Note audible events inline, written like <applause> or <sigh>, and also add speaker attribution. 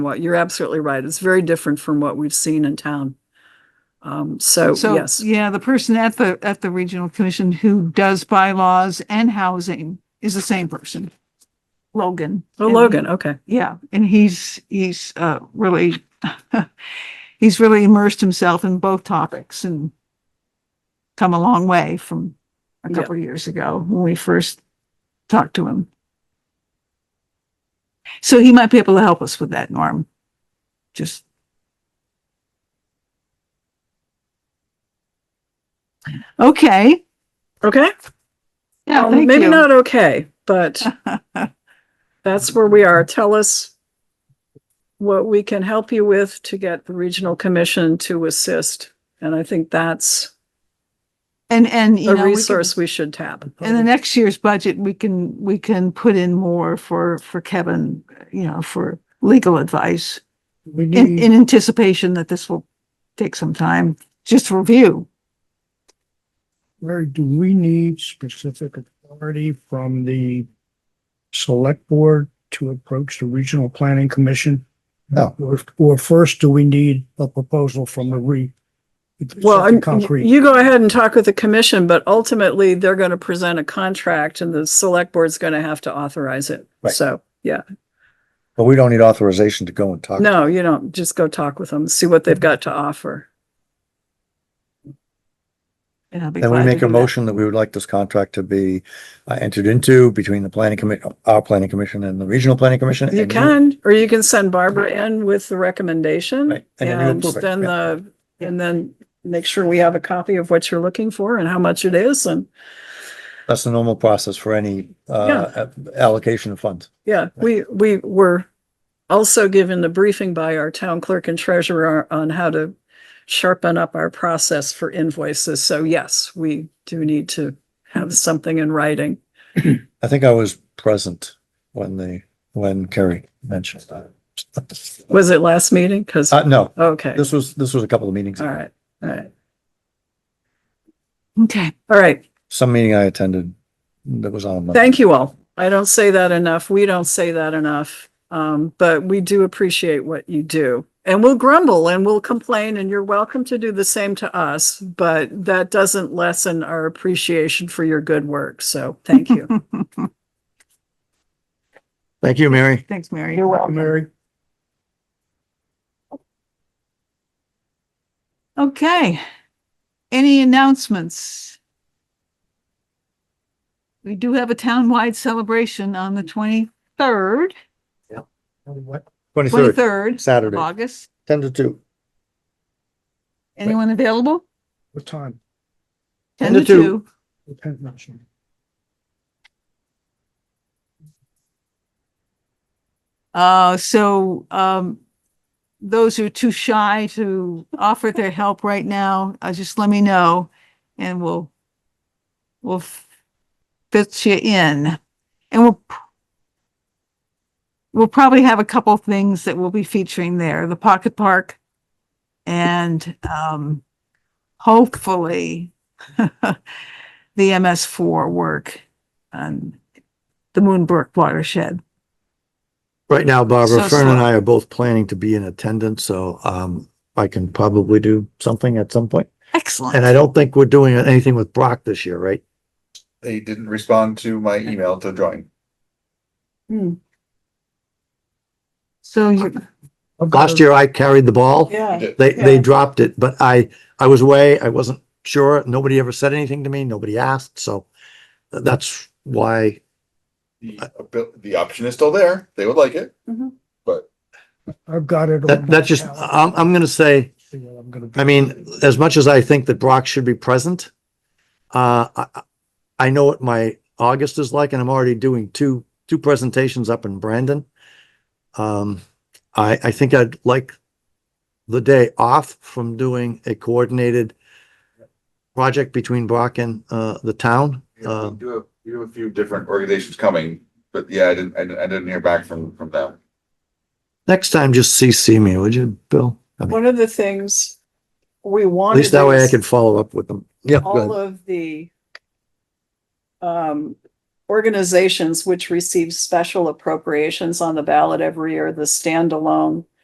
Speaker 1: what, you're absolutely right. It's very different from what we've seen in town. Um, so,
Speaker 2: So,
Speaker 1: yes,
Speaker 2: yeah, the person at the, at the regional commission who does bylaws and housing is the same person. Logan.
Speaker 1: oh,
Speaker 2: And-
Speaker 1: Logan, okay,
Speaker 2: Yeah, and he's, he's, uh, really, <laughs> he's really immersed himself in both topics and come a long way from a
Speaker 1: Yeah.
Speaker 2: couple of years ago when we first talked to him. So he might be able to help us with that, Norm. Just. Okay.
Speaker 1: okay.
Speaker 2: Yeah,
Speaker 1: Um, Maybe not okay, but that's where we are. Tell us what we can help you with to get the regional commission to assist. And I think that's
Speaker 2: <laughs> And, and, you
Speaker 1: a
Speaker 2: know. we can-
Speaker 1: resource we should tap.
Speaker 2: In the next year's budget, we can, we can put in more for, for Kevin, you know, for legal advice
Speaker 3: We
Speaker 2: in,
Speaker 3: need,
Speaker 2: in anticipation that this will take some time, just to review.
Speaker 3: Mary, do we need specific authority from the select board to approach the regional planning commission?
Speaker 4: No.
Speaker 3: Or, or first, do we need a proposal from the re?
Speaker 1: Well,
Speaker 3: something
Speaker 1: I'm-
Speaker 3: Concrete.
Speaker 1: you go ahead and talk with the commission, but ultimately they're going to present a contract and the select board's going to have to authorize it.
Speaker 4: Right.
Speaker 1: So, yeah,
Speaker 4: But we don't need authorization to go and talk.
Speaker 1: no, you don't. Just go talk with them, see what they've got to offer.
Speaker 2: and I'll be
Speaker 4: Then we
Speaker 2: glad to
Speaker 4: make
Speaker 2: do
Speaker 4: a
Speaker 2: that.
Speaker 4: motion that we would like this contract to be uh, entered into between the planning commit, our planning commission and the regional planning commission.
Speaker 1: You
Speaker 4: and
Speaker 1: can, or you can send Barbara in with the recommendation
Speaker 4: Right, and then you
Speaker 1: and
Speaker 4: approve it,
Speaker 1: then
Speaker 4: yeah.
Speaker 1: the, and then make sure we have a copy of what you're looking for and how much it is and
Speaker 4: That's the normal process for any, uh, allocation of funds.
Speaker 1: Yeah, we, we were also given the briefing by our town clerk and treasurer on how to sharpen up our process for invoices. So yes, we do need to have something in writing.
Speaker 4: I think I was present when the, when Kerry mentioned that.
Speaker 1: Was it last meeting? Because,
Speaker 4: Uh, no,
Speaker 1: okay,
Speaker 4: this was, this was a couple of meetings.
Speaker 1: all
Speaker 4: ago.
Speaker 1: right, all right,
Speaker 2: Okay,
Speaker 1: all right.
Speaker 4: Some meeting I attended that was on.
Speaker 1: Thank you all. I don't say that enough. We don't say that enough. Um, but we do appreciate what you do. And we'll grumble and we'll complain and you're welcome to do the same to us, but that doesn't lessen our appreciation for your good work. So thank
Speaker 4: <laughs>
Speaker 1: you.
Speaker 4: Thank you, Mary.
Speaker 2: thanks, Mary. You're welcome.
Speaker 3: Mary,
Speaker 2: Okay. Any announcements? We do have a townwide celebration on the twenty-third,
Speaker 4: Twenty-third,
Speaker 2: twenty-third of
Speaker 4: Saturday,
Speaker 2: August.
Speaker 4: ten to two.
Speaker 2: Anyone available?
Speaker 3: what time?
Speaker 2: 10 to 2.
Speaker 3: Repent not, shame.
Speaker 2: Uh, so, um, those who are too shy to offer their help right now, uh, just let me know and we'll, we'll f- fit you in. And we'll, p- we'll probably have a couple things that we'll be featuring there, the Pocket Park and, um, hopefully <laughs> the MS4 work on the Moonbrook watershed.
Speaker 4: Right now, Barbara,
Speaker 2: So
Speaker 4: Fern and
Speaker 2: slow.
Speaker 4: I are both planning to be in attendance, so um I can probably do something at some point.
Speaker 2: Excellent.
Speaker 4: And I don't think we're doing anything with Brock this year, right?
Speaker 5: they didn't respond to my email to join.
Speaker 2: So you,
Speaker 4: Last year I carried the ball.
Speaker 1: Yeah.
Speaker 4: They they
Speaker 1: Yeah.
Speaker 4: dropped it, but I I was away. I wasn't sure. Nobody ever said anything to me. Nobody asked, so th- that's why
Speaker 5: The, abil- the option is still there. They would like it.
Speaker 3: I've got it.
Speaker 4: that
Speaker 3: on
Speaker 4: that just
Speaker 3: my calendar.
Speaker 4: I'm I'm gonna say
Speaker 3: See what I'm gonna do.
Speaker 4: I mean, as much as I think that Brock should be present, uh, I, I- I know what my August is like and I'm already doing two, two presentations up in Brandon. Um, I, I think I'd like the day off from doing a coordinated project between Brock and, uh, the town.
Speaker 5: Yeah,
Speaker 4: Um,
Speaker 5: We do have, we have a few different organizations coming, but yeah, I didn't, I didn't, I didn't hear back from, from them.
Speaker 4: next time just CC me, would you, Bill? I mean,
Speaker 1: One of the things we
Speaker 4: At
Speaker 1: wanted.
Speaker 4: least that way I
Speaker 1: is-
Speaker 4: can follow up with them. Yeah. go
Speaker 1: all
Speaker 4: ahead.
Speaker 1: of the um organizations which receive special appropriations on the ballot every year, the standalone